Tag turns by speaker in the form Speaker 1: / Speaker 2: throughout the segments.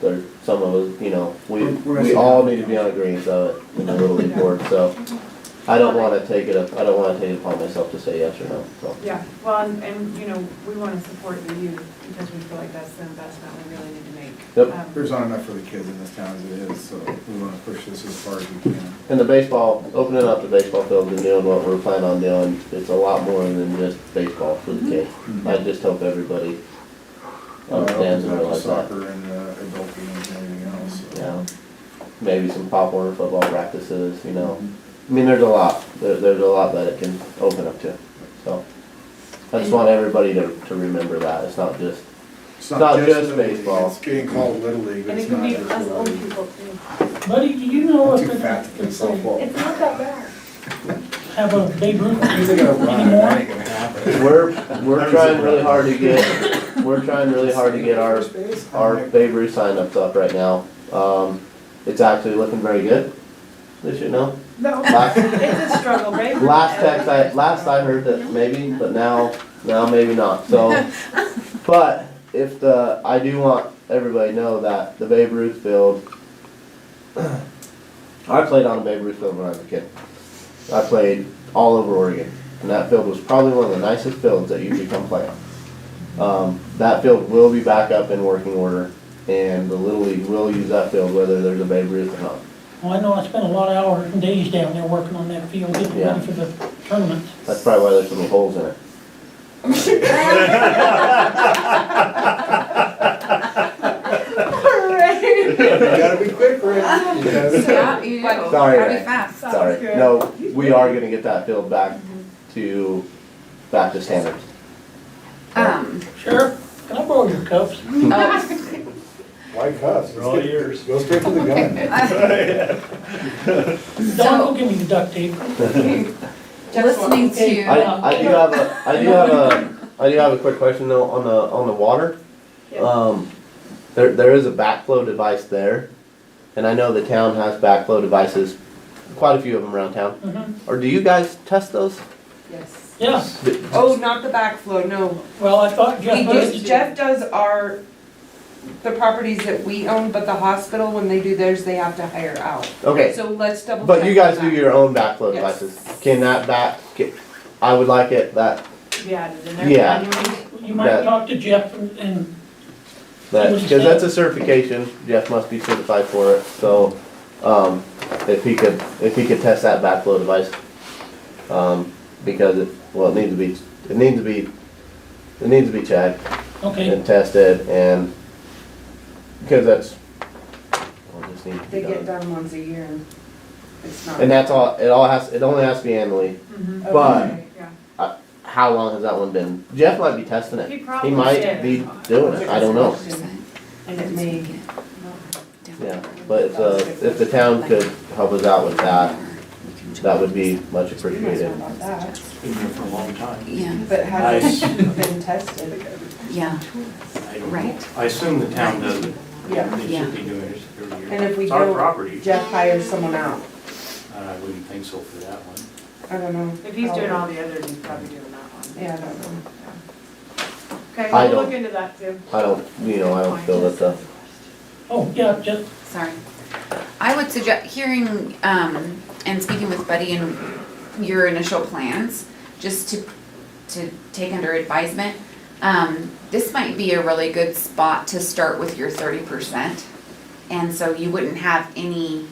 Speaker 1: there's some of us, you know, we,
Speaker 2: We're- we're gonna
Speaker 1: we
Speaker 2: sit
Speaker 1: all
Speaker 2: down.
Speaker 1: need to be on agreeance of it in the Little League Board, so. I don't wanna take it, up- I don't wanna take it upon myself to say yes or no, so.
Speaker 3: Yeah, well, and, and, you know, we want to support the youth because we feel like that's the investment we really need to make.
Speaker 1: Yep.
Speaker 3: Um,
Speaker 2: There's not enough for the kids in this town as it is, so we wanna push this as far as we can.
Speaker 1: And the baseball, opening up the baseball field and doing what we're planning on doing, it's a lot more than just baseball for the kids. I just hope everybody
Speaker 2: Uh,
Speaker 1: understands and
Speaker 2: opens up to
Speaker 1: realizes that.
Speaker 2: Soccer and, uh, adult games and everything else. so.
Speaker 1: Yeah. Maybe some pop warner football practices, you know. I mean, there's a lot, there, there's a lot that it can open up to, so. I just want everybody to, to remember that, it's not just,
Speaker 2: It's
Speaker 1: Not just
Speaker 2: Little League,
Speaker 1: baseball.
Speaker 2: It's getting called Little League, but
Speaker 3: And it
Speaker 2: it's
Speaker 3: could
Speaker 2: not
Speaker 3: be
Speaker 2: just
Speaker 3: us
Speaker 2: Little
Speaker 3: old
Speaker 2: League.
Speaker 3: people too.
Speaker 4: Buddy, do you know
Speaker 2: I'm
Speaker 4: if
Speaker 2: too fat to play
Speaker 4: it's,
Speaker 2: softball.
Speaker 5: It's not that bad.
Speaker 4: have a big roof
Speaker 2: He's like, "Oh, wow, that
Speaker 4: anymore?
Speaker 2: ain't gonna happen."
Speaker 1: we're, we're trying really hard to get, we're trying really hard to get our our Babe Ruth signups up right now. Um, it's actually looking very good. They should know.
Speaker 3: No,
Speaker 1: Last,
Speaker 3: it's a struggle, right?
Speaker 1: last text I last I heard that maybe, but now now maybe not. So, but if the I do want everybody to know that the Babe Ruth field. I played on a Babe Ruth field when I was a kid. I played all over Oregon, and that field was probably one of the nicest fields that you could come play on. Um, that field will be back up in working order, and the Little League will use that field whether there's a Babe Ruth or not.
Speaker 4: Well, I know I spent a lot of hours and days down there working on that field, getting
Speaker 1: Yeah.
Speaker 4: ready for the tournament.
Speaker 1: That's probably why there's some holes in it.
Speaker 3: Right.
Speaker 2: You gotta be quick, Rick. You gotta be-
Speaker 6: Yeah, you do.
Speaker 1: Sorry,
Speaker 6: Gotta
Speaker 1: Ray.
Speaker 6: be fast.
Speaker 3: Sounds
Speaker 1: Sorry.
Speaker 3: good.
Speaker 1: No, we are gonna get that field back to, back to standards.
Speaker 6: Um,
Speaker 4: Sheriff, can I borrow your cups?
Speaker 6: oh,
Speaker 2: Why cuss? They're all yours. Go straight to the gun.
Speaker 4: Don,
Speaker 6: so,
Speaker 4: go give me the duct tape.
Speaker 6: listening
Speaker 4: Okay.
Speaker 1: I,
Speaker 6: to,
Speaker 1: I do have a, I do have a, I do have a quick question though on the, on the water.
Speaker 3: Yeah.
Speaker 1: Um, there, there is a backflow device there, and I know the town has backflow devices, quite a few of them around town.
Speaker 4: Mhm.
Speaker 1: Or do you guys test those?
Speaker 3: Yes.
Speaker 4: Yeah,
Speaker 7: Oh, not the backflow, no.
Speaker 4: well, I thought Jeff,
Speaker 7: We do,
Speaker 4: Hurst-
Speaker 7: Jeff does our, the properties that we own, but the hospital, when they do theirs, they have to hire out.
Speaker 1: Okay,
Speaker 7: So let's double check.
Speaker 1: But you guys
Speaker 7: on
Speaker 1: do
Speaker 7: that.
Speaker 1: your own backflow
Speaker 7: Yes.
Speaker 1: devices. Can that back, ca- I would like it, that,
Speaker 3: Yeah, it is in there.
Speaker 1: Yeah.
Speaker 4: you might
Speaker 1: that-
Speaker 4: talk to Jeff and- and,
Speaker 1: that,
Speaker 4: Understand.
Speaker 1: because that's a certification, Jeff must be certified for it, so, um, if he could, if he could test that backflow device. Um, because it, well, it needs to be, it needs to be, it needs to be checked
Speaker 4: okay,
Speaker 1: and tested and, because that's, well, it just needs to
Speaker 7: They
Speaker 1: be
Speaker 7: get
Speaker 1: done.
Speaker 7: done once a year and it's not.
Speaker 1: And that's all, it all has, it only has to be annually.
Speaker 3: Mhm.
Speaker 1: but-
Speaker 7: Okay.
Speaker 3: Yeah.
Speaker 1: How long has that one been? Jeff might be testing it.
Speaker 3: He
Speaker 1: He
Speaker 3: probably
Speaker 1: might
Speaker 3: did.
Speaker 1: be doing it, I don't know.
Speaker 7: And it may,
Speaker 1: Yeah, but if, uh, if the town could help us out with that, that would be much
Speaker 7: we might as well
Speaker 1: appreciated.
Speaker 7: about that,
Speaker 8: Been there for a long time.
Speaker 6: Yeah,
Speaker 7: but hasn't been tested.
Speaker 6: yeah,
Speaker 8: I don't know.
Speaker 6: Right.
Speaker 8: I assume the town does it.
Speaker 7: Yeah.
Speaker 8: They
Speaker 6: Yeah.
Speaker 8: should be doing it every year.
Speaker 7: And if we
Speaker 8: It's our
Speaker 7: don't,
Speaker 8: property,
Speaker 7: Jeff hires someone out.
Speaker 8: and I wouldn't think so for that one.
Speaker 7: I don't know.
Speaker 3: If he's doing all the others, he's probably doing that one.
Speaker 7: Yeah, I don't know.
Speaker 3: Okay,
Speaker 1: I
Speaker 3: we'll
Speaker 1: don't-
Speaker 3: look into that too.
Speaker 1: I don't, you know, I don't feel that the,
Speaker 4: oh, yeah, Jeff,
Speaker 6: sorry. I would suggest, hearing, um, and speaking with Buddy and your initial plans, just to, to take under advisement, um, this might be a really good spot to start with your thirty percent. And so you wouldn't have any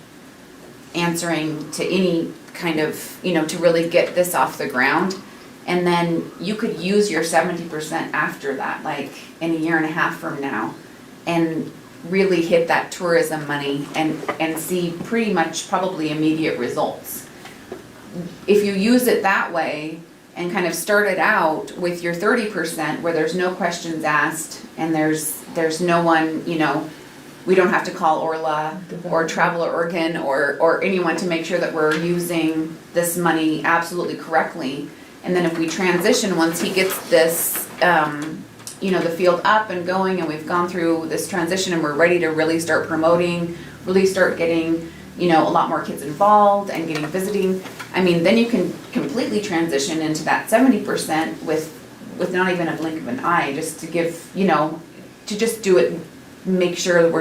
Speaker 6: answering to any kind of, you know, to really get this off the ground. And then you could use your seventy percent after that, like in a year and a half from now. And really hit that tourism money and, and see pretty much probably immediate results. If you use it that way and kind of start it out with your thirty percent where there's no questions asked and there's, there's no one, you know, we don't have to call Orla or Traveler Oregon or, or anyone to make sure that we're using this money absolutely correctly. And then if we transition, once he gets this, um, you know, the field up and going and we've gone through this transition and we're ready to really start promoting, really start getting, you know, a lot more kids involved and getting visiting. I mean, then you can completely transition into that seventy percent with, with not even a blink of an eye, just to give, you know, to just do it, make sure that we're